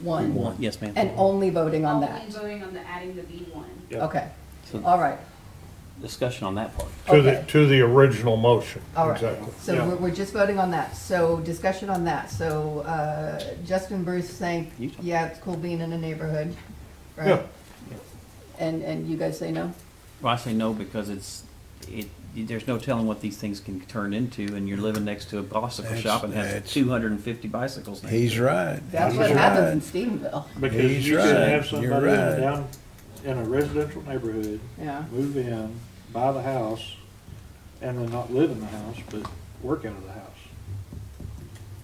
one? B1. Yes, ma'am. And only voting on that? Only voting on the adding the B one. Yeah. Okay, So- all right, Discussion on that part. To the, Okay. to the original motion. all right. Exactly. So Yeah. we're, we're just voting on that, so discussion on that, so, uh, Justin Bruce saying, You talk. yeah, it's cool being in a neighborhood, Yeah. right? And, and you guys say no? Well, I say no because it's, it, there's no telling what these things can turn into, and you're living next to a bicycle That's- shop and has that's- two hundred and fifty bicycles next He's to it. right. That's He's what happens in right. Stephenville, Because He's you could right. have You're somebody right. down in a residential neighborhood, yeah. move in, buy the house, and then not live in the house, but work out of the house.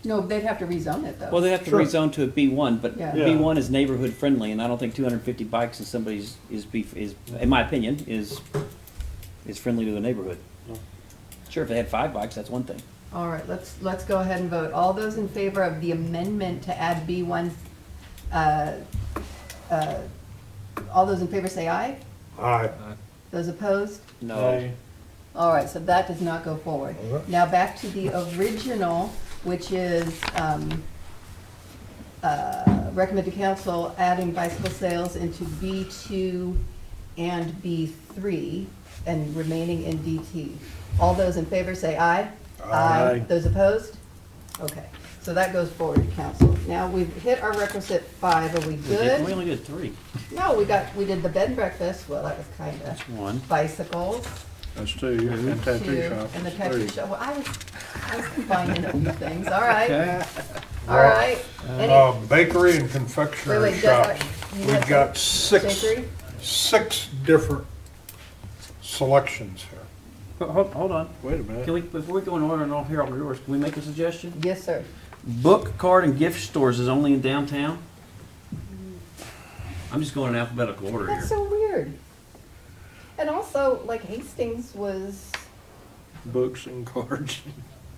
No, they'd have to rezone it though. Well, they have to Sure. rezone to a B one, but Yeah. B one is neighborhood friendly, and I don't think two hundred and fifty bikes in somebody's, is, be- is, in my opinion, is, is friendly to the neighborhood. Yeah. Sure, if they had five bikes, that's one thing. All right, let's, let's go ahead and vote. All those in favor of the amendment to add B one, uh, uh, all those in favor say aye. Aye. Those opposed? No. All right, so that does not go forward. All right. Now back to the original, which is, um, uh, recommend to council adding bicycle sales into B two and B three and remaining in DT. All those in favor say aye. Aye. Those opposed? Okay, so that goes forward to council. Now, we've hit our requisite five, are we We did- we good? only did three. No, we got, we did the bed and breakfast, well, that was kinda That's one. bicycles. That's two, and tattoo Two, shop And the is tattoo three. shop, well, I was, I was combining a few things, all right, Okay. all right. Any- Uh, Um, Bakery and Wait, confectionery wait, just, shop. uh, you had We've some- got six, Bakery? six different selections here. Hold, hold on. Wait a minute. Can we, before we go in order and all here, all yours, can we make a suggestion? Yes, sir. Book, card, and gift stores is only in downtown? I'm just going in alphabetical order That's here. so weird. And also, like Hastings was, Books and cards,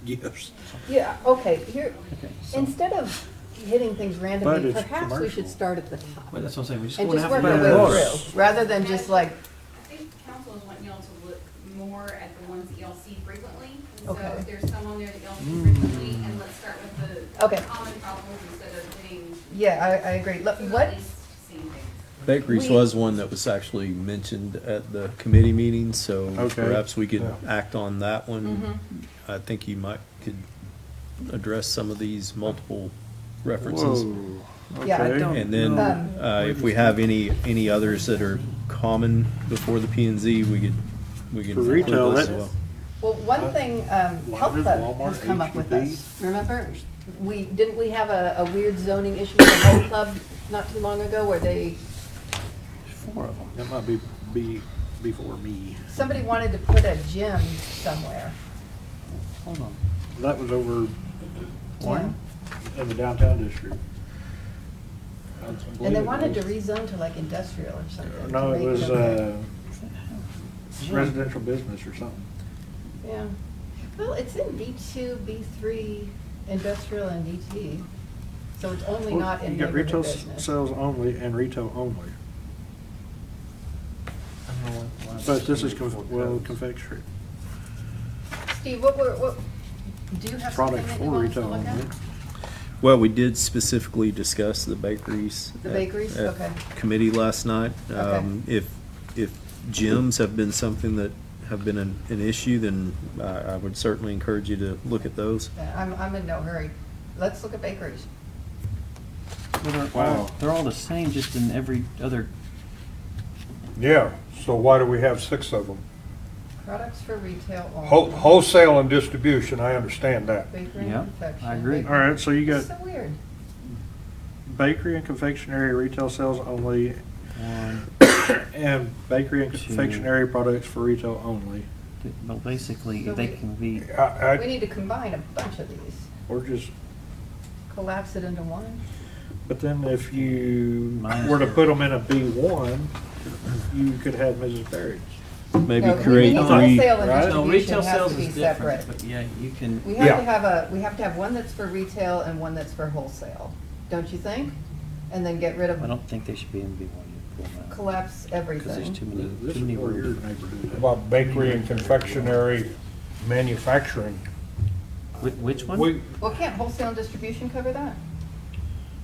gifts. yeah, okay, here, Okay, so- instead of hitting things But randomly, it's perhaps we should commercial. start at the top. Wait, that's what I'm saying, we just And go in just work our alphabetical way order. through, rather than just like, I think council is wanting y'all to look more at the ones that y'all see frequently. And So Okay. if there's some on there that y'all see frequently, and let's start with the Okay. common problems instead of hitting yeah, I, I agree, look, who what, at least seen things. Bakeries We- was one that was actually mentioned at the committee meeting, so Okay. perhaps we could Yeah. act on that one. Mm-hmm. I think you might, could address some of these multiple references. Whoa. Yeah, I Okay. don't And then, Um, uh, if we have any, any others that are common before the P and Z, we could, we could For include retail, those as that- well. Well, one thing, um, Health Uh, Walmart, E Club has come up with H-E-B. this, remember? We, didn't we have a, a weird zoning issue with Health Club not too long ago where they, Four of them. That might be, be, before me. somebody wanted to put a gym somewhere? Hold on. That was over One. in the downtown district. I And believe they it wanted to was- rezone to like industrial or something. to No, it make Mm-hmm. was, okay. uh, residential business or something. Yeah. Well, it's in B two, B three, industrial and DT, so it's only not in You got neighborhood retail s- business. sales only and retail only. But this is, conf- well, confectionery. Steve, what, were- what, do you have something Products that you for want us to retail look at? only. Well, we did specifically discuss the bakeries. The at- bakeries? at Okay. Committee last night. Okay. Um, If, if gyms have been something that have been an, an issue, then I, I would certainly encourage you to look at those. Yeah, Uh, I'm, I'm in no hurry. Let's look at bakeries. Wow. They're all the same, just in every other, Yeah, so why do we have six of them? Products for retail Whole- only. Wholesale and distribution, I understand that. Bakery Yeah, I and confection. agree. All right, so you got It's so weird. bakery and confectionery, retail sales only, one, and bakery and Two. confectionery products for retail only. two- but basically, So they we- can be, I, I, We need to combine a bunch of these, Or just, collapse it into one. but then if you Mine's were to here. put them in a B one, you could have Mrs. Berry's. Maybe No, we- We create need three. wholesale and right? distribution no, retail has sales to be is different, separate. but yeah, you can, We have to Yeah. have a, we have to have one that's for retail and one that's for wholesale, don't you think? And then get rid I of, don't think they should be in B one. collapse Because there's everything. too many, This too is many where your orders. neighborhood. is. about bakery and confectionery manufacturing. Whi- Which one? We, Well, can't wholesale and distribution cover that?